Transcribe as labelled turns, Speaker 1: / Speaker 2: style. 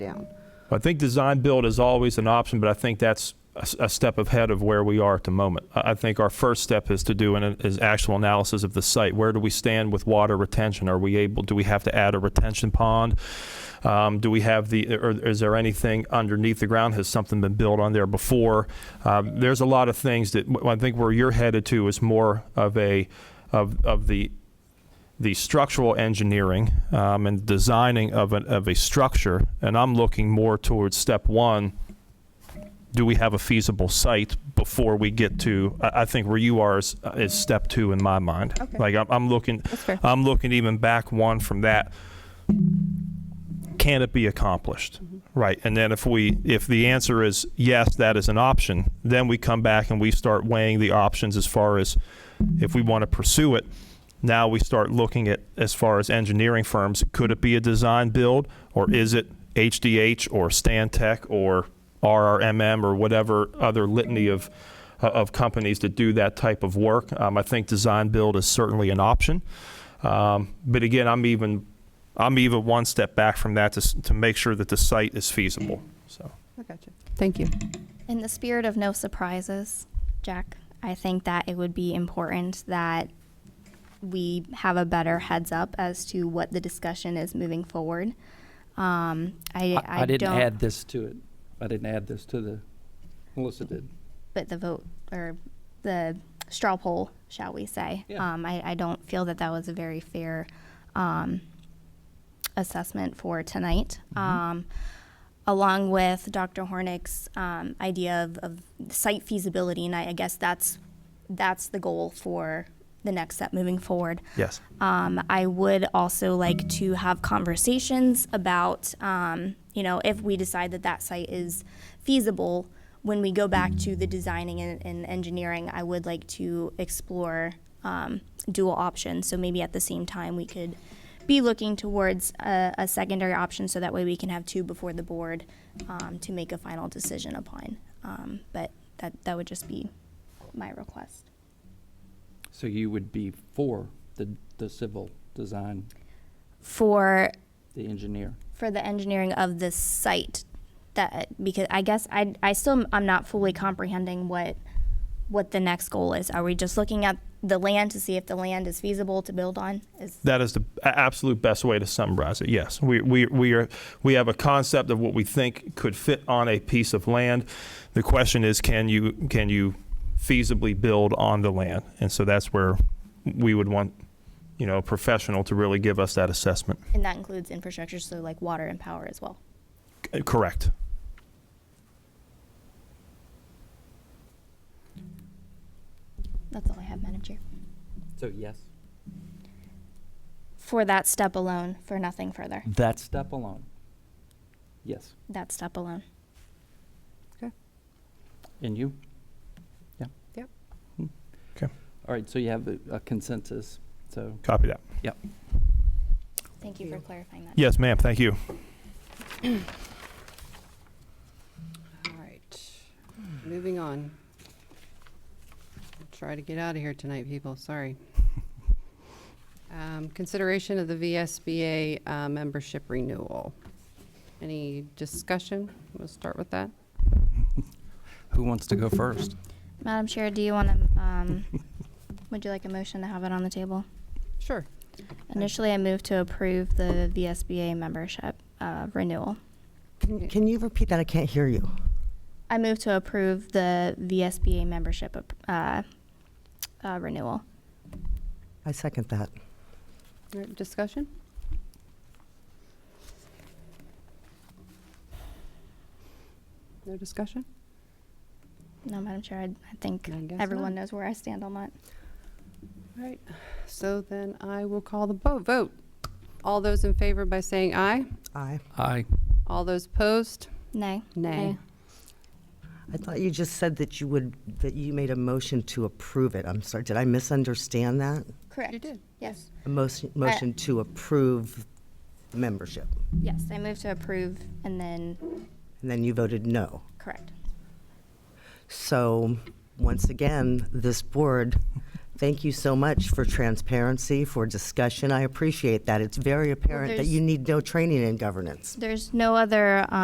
Speaker 1: down.
Speaker 2: I think design build is always an option, but I think that's a, s- a step ahead of where we are at the moment. I, I think our first step is to do an is actual analysis of the site. Where do we stand with water retention? Are we able? Do we have to add a retention pond? Um, do we have the, or is there anything underneath the ground? Has something been built on there before? Um, there's a lot of things that I think where you're headed to is more of a, of, of the the structural engineering um, and designing of, an, of a structure, and I'm looking more towards step one. Do we have a feasible site before we get to? I, I think where you are is, is step two in my mind.
Speaker 1: Okay.
Speaker 2: Like I'm, I'm looking,
Speaker 1: That's fair.
Speaker 2: I'm looking even back one from that. Can it be accomplished?
Speaker 1: Mm-hmm.
Speaker 2: Right. And then if we if the answer is yes, that is an option, then we come back and we start weighing the options as far as if we want to pursue it. Now we start looking at as far as engineering firms, could it be a design build or is it HDH or Stantec or RRMM or whatever other litany of of companies that do that type of work. Um, I think design build is certainly an option. Um, but again, I'm even I'm even one step back from that to, s- to make sure that the site is feasible. So
Speaker 1: I got you. Thank you.
Speaker 3: In the spirit of no surprises, Jack, I think that it would be important that we have a better heads up as to what the discussion is moving forward. Um, I,
Speaker 4: I,
Speaker 3: I,
Speaker 4: I didn't
Speaker 3: don't,
Speaker 4: add this to it. I didn't add this to the, Melissa did.
Speaker 3: but the vote or the straw poll, shall we say?
Speaker 4: Yeah.
Speaker 3: Um, I, I don't feel that that was a very fair um, assessment for tonight. Um, along with Dr. Hornick's um, idea of, of site feasibility, and I, I guess that's that's the goal for the next step moving forward.
Speaker 2: yes,
Speaker 3: Um, I would also like to have conversations about, um, you know, if we decide that that site is feasible, when we go back to the designing and, and engineering, I would like to explore um, dual options. So maybe at the same time, we could be looking towards a, a secondary option so that way we can have two before the board um, to make a final decision upon. Um, but that, that would just be my request.
Speaker 4: So you would be for the, the civil design,
Speaker 3: For
Speaker 4: the engineer.
Speaker 3: for the engineering of this site that because I guess I I still I'm not fully comprehending what what the next goal is. Are we just looking at the land to see if the land is feasible to build on? Is
Speaker 2: that is the a- absolute best way to summarize it. Yes, we, we, we are we have a concept of what we think could fit on a piece of land. The question is, can you can you feasibly build on the land? And so that's where we would want you know a professional to really give us that assessment.
Speaker 3: and that includes infrastructure, so like water and power as well.
Speaker 2: C- Correct.
Speaker 3: That's all I have, Madam Chair.
Speaker 4: So yes.
Speaker 3: For that step alone, for nothing further.
Speaker 4: That step alone. Yes.
Speaker 3: That step alone.
Speaker 4: And you? Yeah.
Speaker 1: Yep.
Speaker 4: Hmm.
Speaker 2: Okay.
Speaker 4: All right, so you have a a consensus, so.
Speaker 2: Copy that.
Speaker 3: Thank you for clarifying that.
Speaker 2: Yes, ma'am. Thank you.
Speaker 1: All right, moving on. Try to get out of here tonight, people, sorry. Um, Consideration of the VSBA uh, membership renewal. Any discussion? We'll start with that.
Speaker 4: Who wants to go first?
Speaker 3: Madam Chair, do you want to, um, would you like a motion to have it on the table?
Speaker 1: Sure.
Speaker 3: Initially, I moved to approve the VSBA membership uh, renewal.
Speaker 1: Okay.
Speaker 5: Can, can you repeat that? I can't hear you.
Speaker 3: I move to approve the VSBA membership uh, uh, renewal.
Speaker 5: I second that.
Speaker 1: All right, Discussion? No discussion?
Speaker 3: No, Madam Chair, I, I think
Speaker 1: I guess
Speaker 3: everyone
Speaker 1: not.
Speaker 3: knows where I stand on that.
Speaker 1: All right, so then I will call the bo- vote. All those in favor by saying aye?
Speaker 5: Aye.
Speaker 4: Aye.
Speaker 1: All those opposed?
Speaker 3: Nay.
Speaker 1: Nay.
Speaker 5: I thought you just said that you would, that you made a motion to approve it. I'm sorry, did I misunderstand that?
Speaker 3: Correct.
Speaker 1: You did.
Speaker 3: Yes.
Speaker 5: A motion, motion to approve the membership.
Speaker 3: Yes, I move to approve and then
Speaker 5: And then you voted no.
Speaker 3: correct.
Speaker 5: So, once again, this board Thank you so much for transparency, for discussion. I appreciate that. It's very apparent that
Speaker 3: there's-
Speaker 5: you need no training in governance.
Speaker 3: There's no other